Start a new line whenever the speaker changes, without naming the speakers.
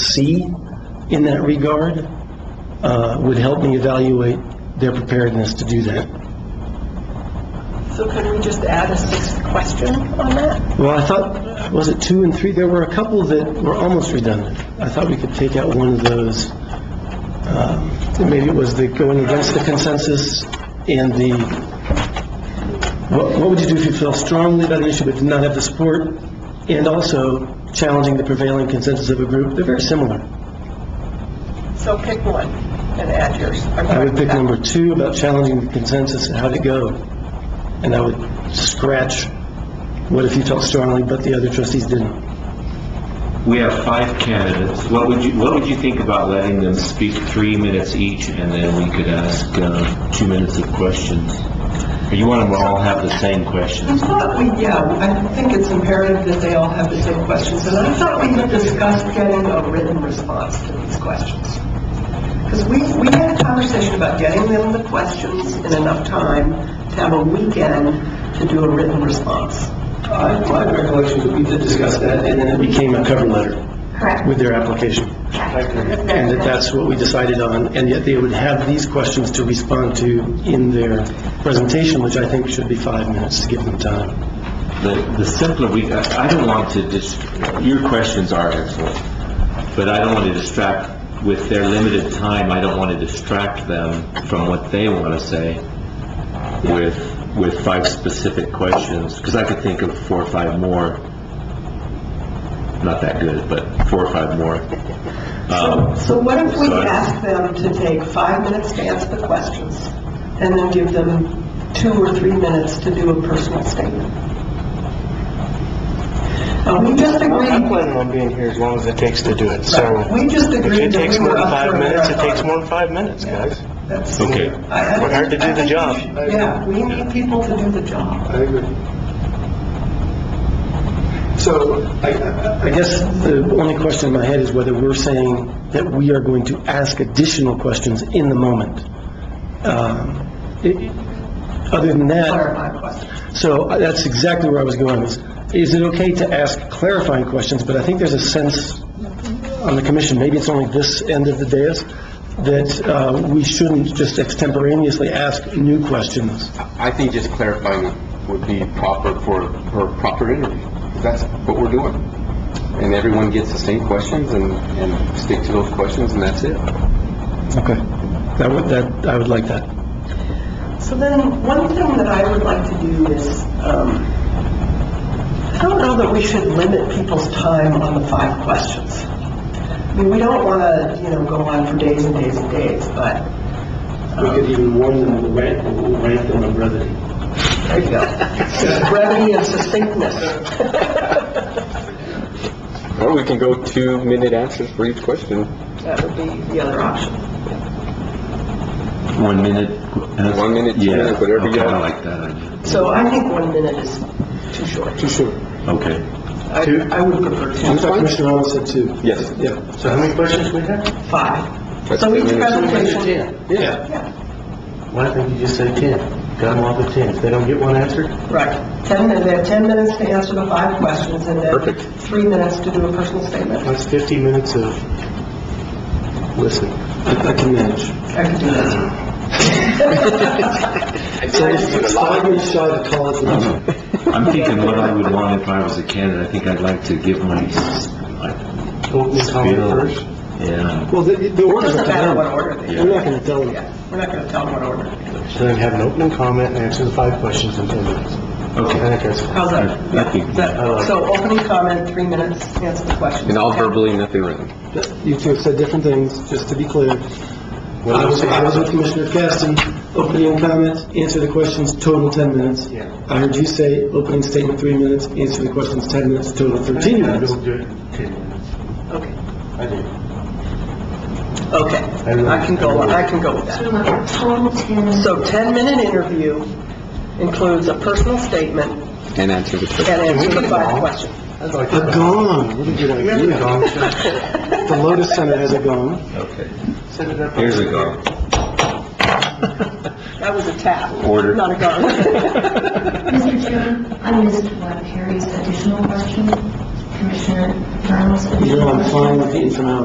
C in that regard uh, would help me evaluate their preparedness to do that.
So could we just add a sixth question on that?
Well, I thought, was it two and three? There were a couple that were almost redundant. I thought we could take out one of those. Um, Maybe it was the going against the consensus and the, what what would you do if you felt strongly about an issue but did not have the support? And also challenging the prevailing consensus of a group. They're very similar.
So pick one and add yours. I'm
I would
fine with
pick
that.
number two about challenging the consensus and how'd it go? And I would scratch, what if you felt strongly but the other trustees didn't?
We have five candidates. What would you, what would you think about letting them speak three minutes each, and then we could ask uh, two minutes of questions? Or you want them to all have the same
I
questions?
thought we, yeah, I think it's imperative that they all have the same questions, and I thought we had discussed getting a written response to these questions. Because we, we had a conversation about getting them the questions in enough time to have a weekend to do a written response.
My recollection is we did discuss that, and then it became a cover letter
Correct.
with their application. And that that's what we decided on, and yet they would have these questions to respond to in their presentation, which I think should be five minutes to give them time.
The, the simpler we, I I don't want to dis, your questions are excellent, but I don't want to distract, with their limited time, I don't want to distract them from what they want to say with, with five specific questions, because I could think of four or five more, not that good, but four or five more. Um,
So what if we
so I-
ask them to take five minutes to answer the questions, and then give them two or three minutes to do a personal statement? Uh, We just
I'm
agreed,
planning on being here as long as it takes to do it, so
we just
if
agreed
it
that
takes
we
more
were
than
up
five
for a
minutes, it takes
marathon.
more than five minutes, guys.
That's-
Okay.
I- I
We're here to
think-
do
I
the
think
job.
we should- Yeah, we need people to do the job.
I agree. So, I- I-
I guess the only question in my head is whether we're saying that we are going to ask additional questions in the moment. Um, it- Other than that...
Clarify questions.
So uh, that's exactly where I was going. Is is it okay to ask clarifying questions? But I think there's a sense on the commission, maybe it's only this end of the dais, that uh, we shouldn't just extemporaneously ask new questions.
I think just clarifying it would be proper for, for a proper interview. That's what we're doing. And everyone gets the same questions and, and stick to those questions and that's it.
Okay. That would, that, I would like that.
So then, one thing that I would like to do is, um, I don't know that we should limit people's time on the five questions. I mean, we don't want to, you know, go on for days and days and days, but, um,
We could even warn them, rank, rank them on brevity.
there you go. Brevity and succinctness.
Or we can go two-minute answers for each question.
That would be the other option.
One minute? uh,
One minute, two
yeah,
minutes, whatever you
okay,
want.
I like that idea.
So I think one minute is too short.
Too short.
Okay.
I I would prefer
I
two,
thought Commissioner Arnold said two.
Yes.
Yeah. So how many questions we have?
five.
That's
So
ten
each
minutes.
presentation,
Yeah.
yeah,
Why don't you just say 10? Got them all to 10. If they don't get one answered,
right. Ten minutes, they have ten minutes to answer the five questions, and then
Perfect.
three minutes to do a personal statement.
that's 50 minutes of, listen. I can manage.
I could do that.
So it's five minutes shy of college level.
I'm thinking what I would want if I was a candidate. I think I'd like to give my, s- my
Opening comment
spiel.
first?
Yeah.
Well, the, the
It
order's
doesn't
up to
matter
them.
what order they
We're not gonna tell them.
Yeah, we're not going to tell them what order.
So then have an opening comment and answer the five questions in ten minutes. I
Okay.
think that's,
How's that?
I think-
that? So opening comment, three minutes, answer the question.
And all verbally, nothing written.
You two have said different things, just to be clear. I was, I was with Commissioner Caston, opening comments, answer the questions, total 10 minutes.
Yeah.
I heard you say, opening statement, three minutes, answer the questions, 10 minutes, total 13 minutes.
we'll do it in ten minutes.
Okay,
I do.
okay. I can go, I can go with that.
Total ten.
So 10-minute interview includes a personal statement
And answer the question.
and answer the five questions.
I'd like
A
to
gong, what a good idea. The Lotus Center has a gong.
Okay.
set it up.
Here's a go.
That was a tap,
Order.
not a gong.
Mr. Chairman, I missed what Perry's additional question, Commissioner Brown's additional
You know, I'm
question.
fine with the informality.